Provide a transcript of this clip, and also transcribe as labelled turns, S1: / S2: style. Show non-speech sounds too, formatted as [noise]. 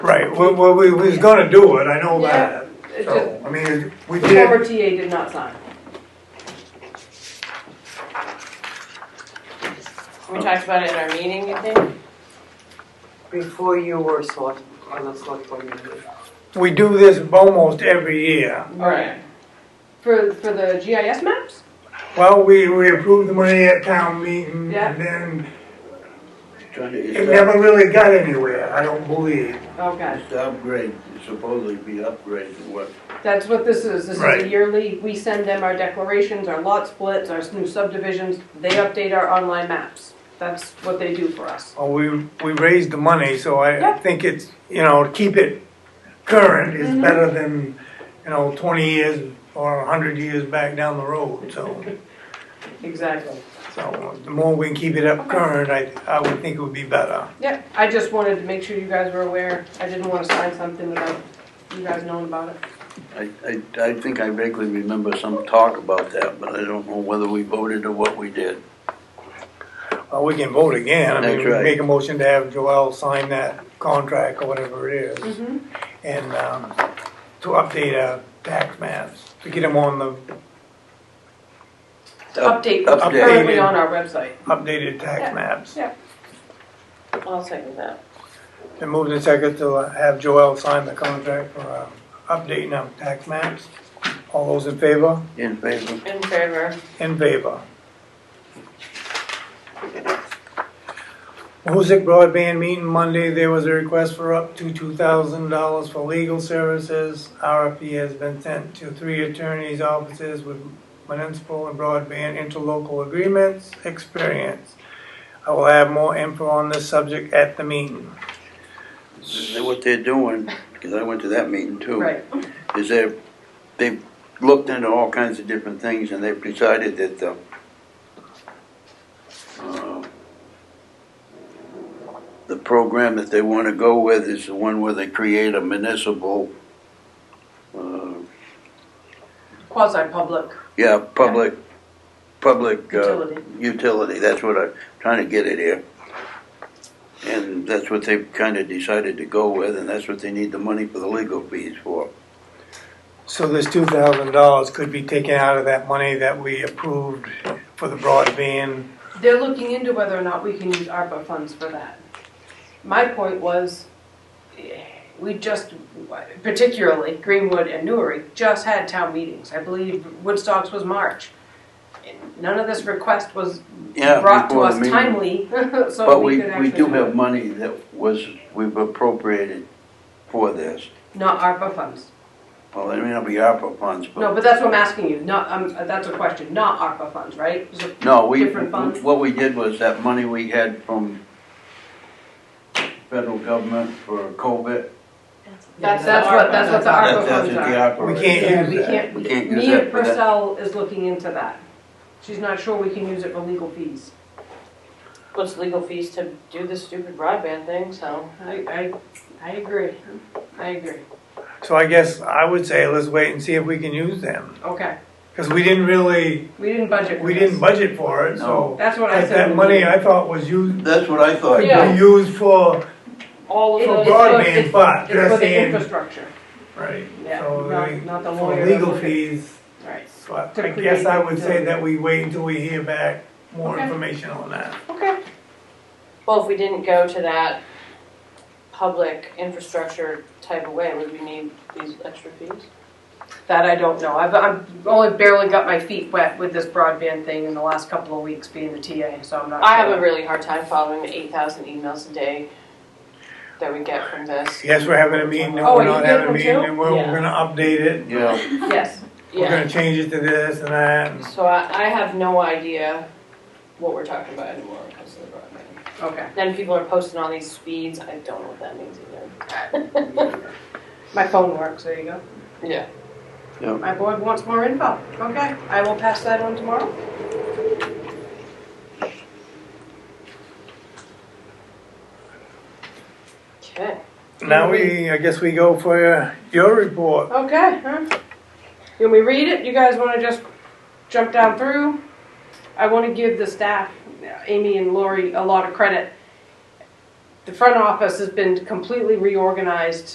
S1: Well, well, we, we was gonna do it, I know that.
S2: It Uh, just-
S1: So, I mean, we
S2: The
S1: did,
S2: former TA did not sign.
S3: We talked about it in our meeting, you
S2: Mm-hmm.
S3: think?
S4: Before you were select, on the select board meeting.
S1: we do this almost every year.
S3: Right.
S2: For, for the GIS maps?
S1: Well, we, we approved the money at town meeting
S2: Yeah.
S1: and then
S5: Trying to,
S1: it
S5: it's up-
S1: never really got anywhere, I don't believe.
S2: Okay,
S5: it's to upgrade, it's supposedly be upgrade to what,
S2: that's what this is. This is a
S1: Right.
S2: yearly, we send them our declarations, our lot splits, our new subdivisions. They update our online maps. That's what they do for us.
S1: Well, we, we raised the money, so I
S2: Yeah.
S1: think it's, you know, to keep it current is
S2: Mhm.
S1: better than, you know, twenty years or hundred years back down the road, so.
S2: Exactly.
S1: So the more we can keep it up current, I, I would think it would be better.
S2: Yep, I just wanted to make sure you guys were aware. I didn't want to sign something without you guys knowing about it.
S5: I, I, I think I vaguely remember some talk about that, but I don't know whether we voted or what we did.
S1: Well, Oh, we can vote again. I mean,
S5: That's
S1: we
S5: right.
S1: make a motion to have Joel sign that contract or whatever it
S2: Mm-hmm.
S1: is. And, um, to update our tax maps, to get them on the
S5: Up-
S2: Update,
S5: Updated.
S2: currently on our website.
S1: updated tax maps.
S3: I'll second that.
S1: And move the second to uh, have Joel sign the contract for, uh, updating our tax maps. All those in favor?
S5: In favor?
S3: In favor.
S1: In favor. Music broadband meeting Monday, there was a request for up to two thousand dollars for legal services. RFP has been sent to three attorneys' offices with municipal and broadband interlocal agreements experience. I will have more info on this subject at the meeting.
S5: Is that What they're doing, because I went to that meeting too.
S2: Right.
S5: Is they're, they've looked into all kinds of different things and they've decided that the, uh, the program that they want to go with is the one where they create a municipal, uh,
S2: Quasi-public
S5: Yeah, public, public uh,
S2: utility.
S5: utility, that's what I'm trying to get at here. And that's what they've kind of decided to go with, and that's what they need the money for the legal fees for.
S1: So this two thousand dollars could be taken out of that money that we approved for the broadband.
S2: They're looking into whether or not we can use ARPA funds for that. My point was, eh, we just, particularly Greenwood and Newry, just had town meetings. I believe Woodstocks was March. None of this request was
S5: Yeah,
S2: brought to
S5: before the
S2: us
S5: meeting.
S2: timely, [laughs] so
S5: But
S2: we
S5: we,
S2: could actually.
S5: we do
S2: do
S5: have
S2: it.
S5: money that was, we've appropriated for this.
S2: Not ARPA funds.
S5: Well, it may not be ARPA funds,
S2: No,
S5: but,
S2: but that's what I'm asking you, not, um, that's a question, not ARPA funds, right? So-
S5: no, we,
S2: different funds.
S5: what we did was that money we had from federal government for COVID.
S2: That's, that's what, that's what the ARPA
S5: that's
S2: funds
S5: what the
S2: are.
S5: ARPA
S1: We
S5: is.
S1: can't
S2: Yeah, we
S1: use that.
S2: can't,
S5: We
S2: we-
S5: can't use
S2: Mia
S5: that for that.
S2: Purcell is looking into that. She's not sure we can use it for legal fees.
S3: What's legal fees to do this stupid broadband thing, so.
S2: I, I, I agree, I agree,
S1: So I guess I would say let's wait and see if we can use them.
S2: okay,
S1: Because we didn't really,
S2: we didn't budget for
S1: we didn't
S2: this.
S1: budget for it, so.
S2: That's what I
S1: That
S2: said.
S1: that
S2: we
S1: money
S2: would.
S1: I thought was used,
S5: That's what I thought.
S1: could
S2: Yeah.
S1: be used for,
S2: All
S1: for
S2: of those.
S1: broadband, but
S2: It's for
S1: just
S2: the
S1: in,
S2: infrastructure,
S1: right.
S2: yeah,
S1: So
S2: not, not the
S1: they-
S2: lawyer.
S1: For legal fees,
S2: Right,
S1: but
S2: To
S1: I guess I
S2: create
S1: would
S2: the-
S1: say that we wait until we hear back more
S2: Okay.
S1: information on that.
S2: okay,
S3: Well, if we didn't go to that public infrastructure type of way, would we need these extra fees?
S2: that I don't know, I've, I've only barely got my feet wet with this broadband thing in the last couple of weeks being the TA, so I'm not.
S3: I have
S2: sure.
S3: a really hard time following the eight thousand emails a day that we get from this.
S1: Yes, we're having a meeting,
S2: Oh,
S1: no, we're
S2: you
S1: not
S2: did
S1: having a
S2: one
S1: meeting,
S2: too?
S1: and we're, we're
S3: Yeah.
S1: gonna update it.
S5: Yeah.
S2: Yes.
S1: We're
S3: Yeah,
S1: gonna change it to this and that. and-
S3: so I, I have no idea what we're talking about anymore when it comes to the broadband.
S2: Okay.
S3: Then people are posting all these speeds, I don't know what that means either.
S2: My phone works, there you go.
S3: Yeah.
S2: My board wants more info. Okay, I will pass that on tomorrow.
S3: Okay.
S1: Now we, I guess we go for your- your report.
S2: Okay, huh? Can we read it? You guys wanna just jump down through? I wanna give the staff, Amy and Lori, a lot of credit. The front office has been completely reorganized